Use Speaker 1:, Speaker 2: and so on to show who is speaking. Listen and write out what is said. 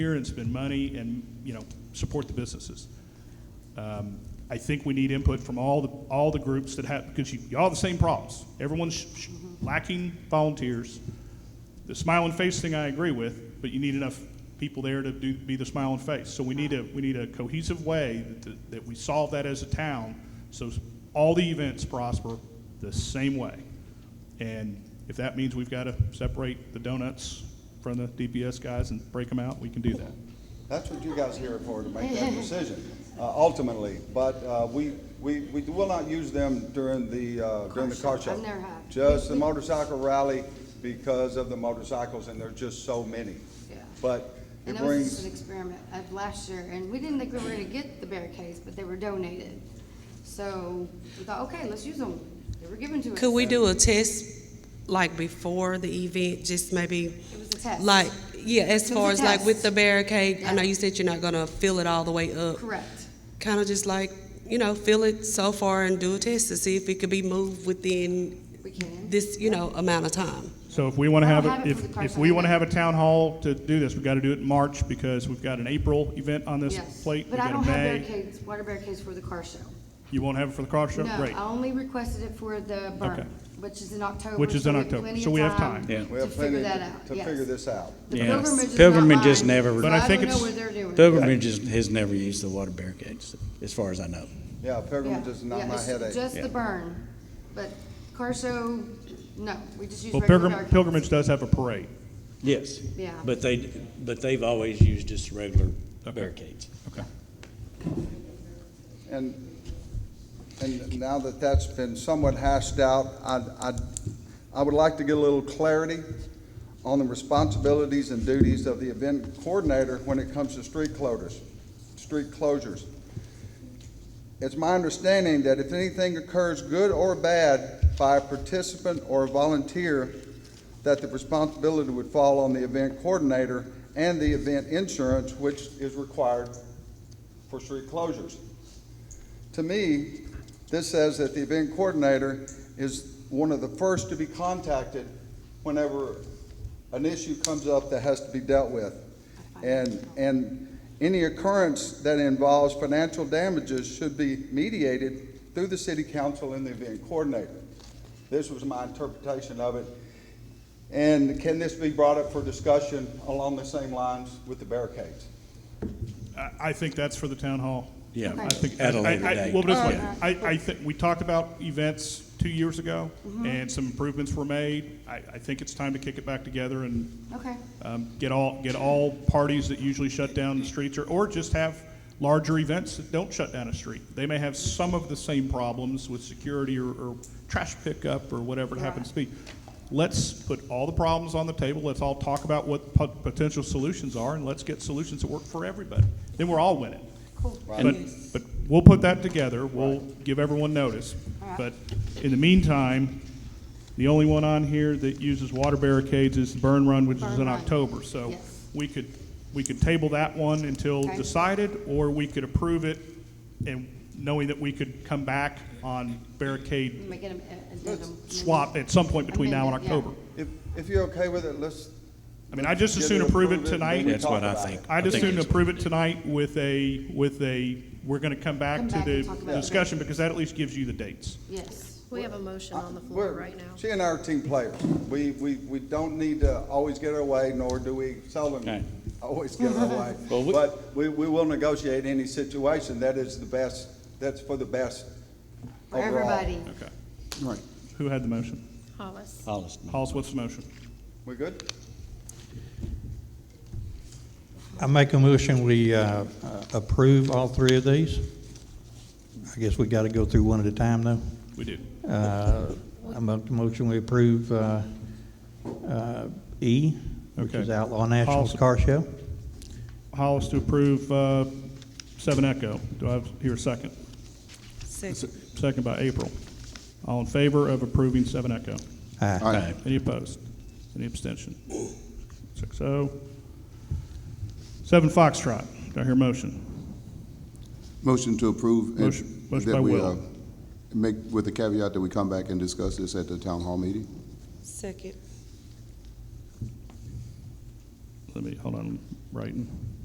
Speaker 1: here and spend money and, you know, support the businesses. Um, I think we need input from all the, all the groups that have, because you, you all have the same problems. Everyone's sh- sh- lacking volunteers. The smile and face thing I agree with, but you need enough people there to do, be the smile and face. So we need a, we need a cohesive way that, that we solve that as a town, so all the events prosper the same way. And if that means we've got to separate the donuts from the DPS guys and break them out, we can do that.
Speaker 2: That's what you guys are here for, to make that decision, uh, ultimately. But uh, we, we, we will not use them during the, uh, during the car
Speaker 3: Car show.
Speaker 2: show.
Speaker 3: I've never had.
Speaker 2: Just the motorcycle rally because of the motorcycles, and there's just so many.
Speaker 3: Yeah.
Speaker 2: But it
Speaker 3: And that was just
Speaker 2: brings,
Speaker 3: an experiment of last year, and we didn't think we were gonna get the barricades, but they were donated. So we thought, okay, let's use them. They were given to us.
Speaker 4: Could we
Speaker 3: so
Speaker 4: do a test, like before the event, just maybe,
Speaker 3: It was a test.
Speaker 4: like, yeah, as
Speaker 3: was a
Speaker 4: far as like with
Speaker 3: test.
Speaker 4: the barricade? I know
Speaker 3: Yeah.
Speaker 4: you said you're not gonna fill it all the way up.
Speaker 3: Correct.
Speaker 4: Kind of just like, you know, fill it so far and do a test to see if it could be moved within
Speaker 3: We can.
Speaker 4: this, you know, amount of time.
Speaker 1: So if we want to
Speaker 3: I
Speaker 1: have,
Speaker 3: don't
Speaker 1: it,
Speaker 3: have it for the
Speaker 1: if,
Speaker 3: car
Speaker 1: if
Speaker 3: show.
Speaker 1: we want to have a town hall to do this, we've got to do it in March because we've got an April event on this
Speaker 3: Yes.
Speaker 1: plate. we've
Speaker 3: But I
Speaker 1: got a
Speaker 3: don't have
Speaker 1: May.
Speaker 3: barricades, water barricades for the car show.
Speaker 1: You won't have it for the car show?
Speaker 3: No,
Speaker 1: Great.
Speaker 3: I only requested it for the
Speaker 1: Okay.
Speaker 3: burn, which is in October.
Speaker 1: Which is
Speaker 3: so
Speaker 1: in
Speaker 3: we have
Speaker 1: October.
Speaker 3: plenty
Speaker 1: So
Speaker 3: of
Speaker 1: we have time.
Speaker 5: Yeah.
Speaker 2: we
Speaker 3: To
Speaker 2: have
Speaker 3: figure
Speaker 2: plenty
Speaker 3: that out,
Speaker 2: to
Speaker 3: yes.
Speaker 2: figure this out.
Speaker 3: The
Speaker 5: Yeah.
Speaker 3: pilgrimage is
Speaker 5: Pilgrimage
Speaker 3: not
Speaker 5: is
Speaker 3: mine,
Speaker 5: never-
Speaker 3: so
Speaker 1: But I
Speaker 3: don't
Speaker 1: think
Speaker 3: know
Speaker 1: it's-
Speaker 3: what they're doing.
Speaker 5: Pilgrimage is, has never used the water barricades, as far as I know.
Speaker 2: Yeah,
Speaker 3: Yeah,
Speaker 2: pilgrimage is
Speaker 3: yeah,
Speaker 2: not my
Speaker 3: it's
Speaker 2: headache.
Speaker 3: Just the
Speaker 5: Yeah.
Speaker 3: burn, but car show, no, we just use
Speaker 1: Well,
Speaker 3: regular
Speaker 1: pilgrim,
Speaker 3: barricades.
Speaker 1: pilgrimage does have a parade.
Speaker 5: Yes.
Speaker 3: Yeah.
Speaker 5: But they, but they've always used just regular barricades.
Speaker 1: Okay.
Speaker 2: And, and now that that's been somewhat hashed out, I, I, I would like to get a little clarity on the responsibilities and duties of the event coordinator when it comes to street closures, street closures. It's my understanding that if anything occurs, good or bad, by a participant or a volunteer, that the responsibility would fall on the event coordinator and the event insurance, which is required for street closures. To me, this says that the event coordinator is one of the first to be contacted whenever an issue comes up that has to be dealt with. And, and any occurrence that involves financial damages should be mediated through the city council and the event coordinator. This was my interpretation of it. And can this be brought up for discussion along the same lines with the barricades?
Speaker 1: I, I think that's for the town hall.
Speaker 5: Yeah.
Speaker 1: I think,
Speaker 5: At a
Speaker 1: I-
Speaker 5: later
Speaker 1: I-
Speaker 5: date.
Speaker 1: Well, but it's
Speaker 3: All
Speaker 1: like-
Speaker 3: right.
Speaker 1: I, I think, we talked about events two years ago, and some improvements were made. I, I think it's time to kick it back together and
Speaker 3: Okay,
Speaker 1: um, get all, get all parties that usually shut down the streets, or, or just have larger events that don't shut down a street. They may have some of the same problems with security or, or trash pickup or whatever it happens to be. Let's put all the problems on the table, let's all talk about what po- potential solutions are, and let's get solutions that work for everybody. Then we're all winning.
Speaker 3: cool.
Speaker 1: But, but we'll put that together, we'll give everyone notice.
Speaker 3: All
Speaker 1: But
Speaker 3: right.
Speaker 1: in the meantime, the only one on here that uses water barricades is the Burn Run, which is
Speaker 3: Burn
Speaker 1: in
Speaker 3: Run.
Speaker 1: October. So
Speaker 3: Yes.
Speaker 1: we could, we could table that one until
Speaker 3: Okay.
Speaker 1: decided, or we could approve it and knowing that we could come back on barricade
Speaker 3: Make it a- a addendum.
Speaker 1: swap at some point between now and
Speaker 3: Amend it, Mm-hmm. yeah.
Speaker 1: October.
Speaker 2: If, if you're okay with it, let's.
Speaker 1: I mean, I just
Speaker 2: let's
Speaker 1: as soon
Speaker 2: get
Speaker 1: approve it
Speaker 2: and then
Speaker 1: tonight.
Speaker 2: we
Speaker 5: That's what
Speaker 2: talk
Speaker 5: I
Speaker 2: about
Speaker 5: think.
Speaker 2: it.
Speaker 1: I'd
Speaker 5: I think
Speaker 1: assume to
Speaker 5: it's-
Speaker 1: approve it tonight with a, with a, we're going to come back
Speaker 3: Come
Speaker 1: to
Speaker 3: back and talk about
Speaker 1: the
Speaker 3: it.
Speaker 1: discussion because that at least gives you the dates.
Speaker 3: Yes.
Speaker 6: We have a motion on the floor
Speaker 2: We're-
Speaker 6: right now.
Speaker 2: She and I are team players. We, we, we don't need to always get our way, nor do we
Speaker 5: Okay.
Speaker 2: seldom always get our way.
Speaker 5: Well, we-
Speaker 2: But we, we will negotiate any situation. That is the best, that's for the best
Speaker 3: For
Speaker 2: overall.
Speaker 3: everybody.
Speaker 1: Okay.
Speaker 5: Right.
Speaker 1: Who had the motion?
Speaker 6: Hollis.
Speaker 5: Hollis.
Speaker 1: Hollis, what's the motion?
Speaker 2: We good?
Speaker 7: I make a motion, we uh, approve all three of these. I guess we got to go through one at a time, though.
Speaker 1: We do.
Speaker 7: Uh, I make a motion, we approve uh, uh, E, which is
Speaker 1: Okay.
Speaker 7: Outlaw Nationals
Speaker 1: Awesome.
Speaker 7: Car Show.
Speaker 1: Hollis to approve uh, Seven Echo. Do I hear a second? Second by April. All in favor of approving Seven Echo?
Speaker 7: Aye.
Speaker 5: Aye.
Speaker 1: Any opposed? Any abstention? Six oh. Seven Foxtrot. Do I hear a motion?
Speaker 8: Motion to approve. and
Speaker 1: Motion- motion
Speaker 8: that
Speaker 1: by
Speaker 8: we,
Speaker 1: Will.
Speaker 8: uh, Make, with the caveat that we come back and discuss this at the town hall meeting.
Speaker 4: Second.
Speaker 1: let me, hold on, I'm writing.